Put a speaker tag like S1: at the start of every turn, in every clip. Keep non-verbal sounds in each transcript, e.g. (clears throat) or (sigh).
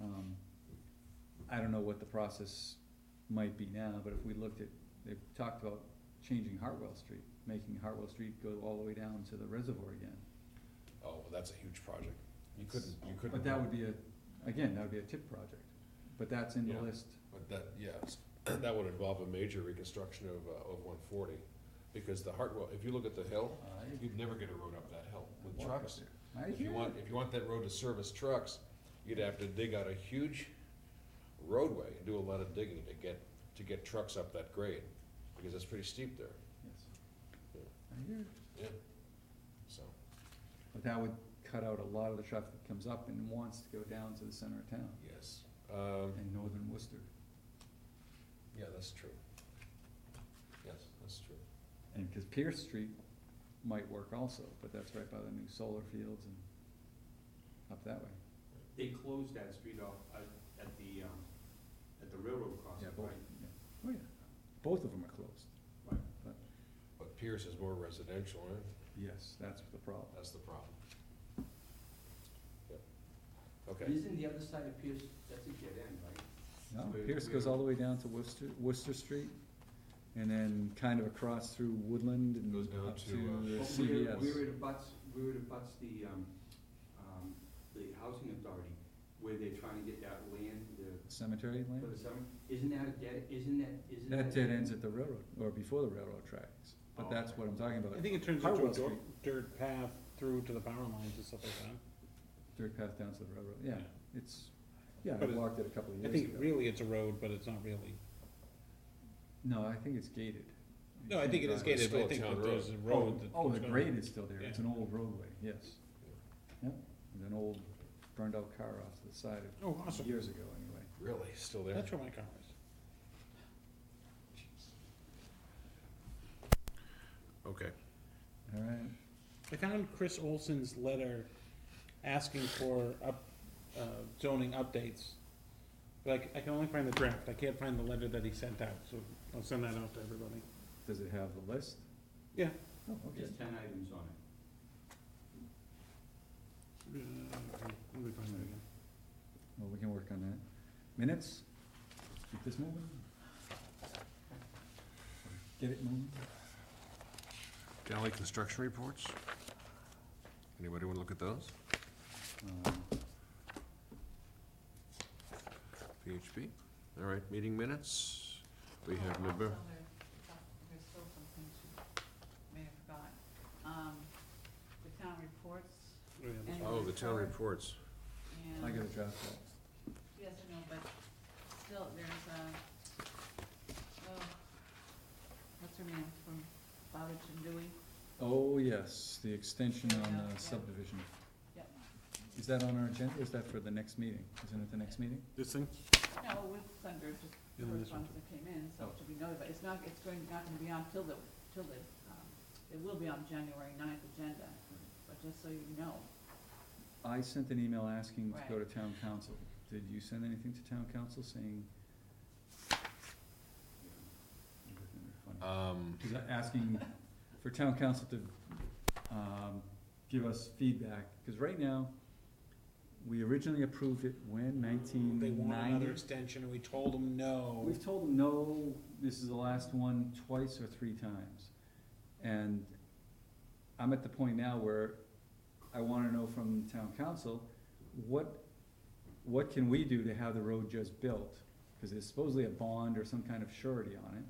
S1: Um, I don't know what the process might be now, but if we looked at, they've talked about changing Hartwell Street, making Hartwell Street go all the way down to the reservoir again.
S2: Oh, well, that's a huge project. You couldn't, you couldn't.
S1: But that would be a, again, that would be a tip project, but that's in the
S2: Yeah.
S1: list.
S2: But that, yes, (clears throat) that would involve a major reconstruction of, uh, of one forty, because the Hartwell, if you look at the hill, you'd never get a road up that hill with trucks.
S1: I
S2: If you
S1: hear
S2: want,
S1: you.
S2: if you want that road to service trucks, you'd have to dig out a huge roadway and do a lot of digging to get, to get trucks up that grade, because it's pretty steep there,
S1: Yes.
S2: Yeah.
S1: I hear you.
S2: yeah, so.
S1: But that would cut out a lot of the traffic that comes up and wants to go down to the center of town
S2: Yes. Um,
S1: and northern Worcester.
S2: yeah, that's true. Yes, that's true.
S1: And, cause Pierce Street might work also, but that's right by the new solar fields and up that way.
S3: They closed that street off at, at the, um, at the railroad crossing,
S1: Yeah, both,
S3: right?
S1: yeah. Oh, yeah. Both of them are closed.
S3: Right.
S2: But Pierce is more residential, eh? right?
S1: Yes, that's the problem.
S2: That's the problem. Yep. Okay,
S3: Isn't the other side of Pierce, that's a dead end, right?
S1: No,
S3: Where-
S1: Pierce goes
S3: where-
S1: all the way down to Worcester, Worcester Street and then kind of across through Woodland and
S2: Goes down
S1: up
S2: to,
S1: to
S2: uh,
S1: the
S3: Well,
S1: CVS.
S3: Where, where it abuts, where it abuts the, um, um, the housing authority, where they're trying to get that land, the,
S1: Cemetery
S3: for
S1: land?
S3: the summer, isn't that a dead, isn't that, isn't that?
S1: That dead ends at the railroad, or before the railroad tracks, but
S3: Oh.
S1: that's what I'm talking about.
S4: I think it turns into
S1: Hartwell
S4: a dirt,
S1: Street.
S4: dirt path through to the power lines and stuff like that.
S1: Dirt path down to the railroad, yeah, it's, yeah, I
S4: But it-
S1: walked it a couple of years
S4: I
S1: ago.
S4: think really it's a road, but it's not really,
S1: No, I think it's gated. You
S4: no, I
S1: can't
S4: think it is
S1: drive.
S2: It's
S4: gated, but
S2: still
S4: I
S2: a
S4: think
S2: town
S4: that there's a
S1: Oh,
S4: road that.
S1: oh, the
S4: that's
S1: grade
S4: going-
S1: is still there, it's an old roadway, yes. Yep, and an old burned out car off to the side
S4: Oh,
S1: of,
S4: awesome,
S1: years ago anyway.
S2: really, still there?
S4: that's where my car is.
S2: Okay.
S1: All right,
S4: I found Chris Olson's letter asking for up, uh, zoning updates. But I c- I can only find the draft, I can't find the letter that he sent out, so I'll send that out to everybody.
S1: does it have the list?
S4: Yeah.
S1: Oh, okay.
S3: There's ten items on it.
S4: Uh, Let me find that again.
S1: Well, we can work on that. Minutes? Keep this moving? Get it moving?
S2: Valley construction reports? Anybody wanna look at those?
S1: Um,
S2: PHP? All right, meeting minutes? We have November,
S5: Also, Um, oh, there- There's still some things you may have forgotten. Um, the town reports
S4: Oh, yeah, that's-
S5: and.
S2: oh, the town reports.
S5: And-
S1: I got a draft that.
S5: Yes, I know, but still, there's, uh, oh, what's her name from Bowditch and Dewey?
S1: Oh, yes, the extension on
S5: Yeah,
S1: the
S5: yeah.
S1: subdivision.
S5: Yep.
S1: Is that on our agenda? Is that for the next meeting? Isn't it the next meeting?
S4: This thing?
S5: No, with Thunder, just
S4: Yeah, this one Oh.
S5: correspondence that came in, so it should be noted, but it's not, it's going, not gonna be on till the, till the, um, it will be on January ninth agenda, but just so you know,
S1: I sent an email asking to go to
S5: Right.
S1: town council. Did you send anything to town council saying? Funny.
S2: Um,
S1: Is that asking for town council to, um, give us feedback, cause right now, we originally approved it when nineteen
S4: They want another
S1: ninety.
S4: extension, and we told them no.
S1: We've told them, no, this is the last one twice or three times, and I'm at the point now where I wanna know from town council, what, what can we do to have the road just built? Cause there's supposedly a bond or some kind of surety on it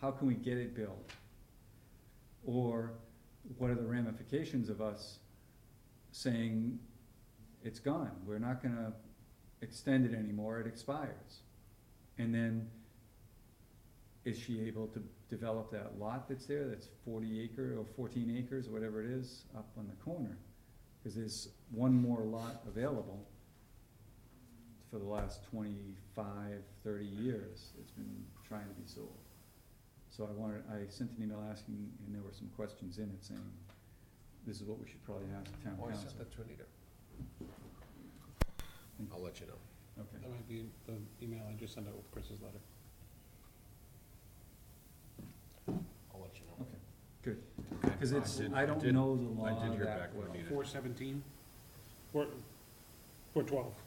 S1: how can we get it built? Or what are the ramifications of us saying, it's gone, we're not gonna extend it anymore, it expires? And then, is she able to develop that lot that's there, that's forty acre or fourteen acres, or whatever it is, up on the corner? Cause there's one more lot available for the last 25, 30 years, it's been trying to be sold. So I wanted, I sent an email asking, and there were some questions in it saying, this is what we should probably ask town
S2: oh, I
S1: council.
S2: sent that to Anita. I'll let you know.
S1: Okay,
S4: That might be the email I just sent out with Chris's letter.
S2: I'll let you know.
S1: okay, good,
S2: Okay.
S1: cause it's,
S2: did-
S1: I don't
S2: did-
S1: know the law
S2: I did hear
S1: that
S2: back from
S1: well.
S2: Anita.
S4: Four seventeen, four, four twelve.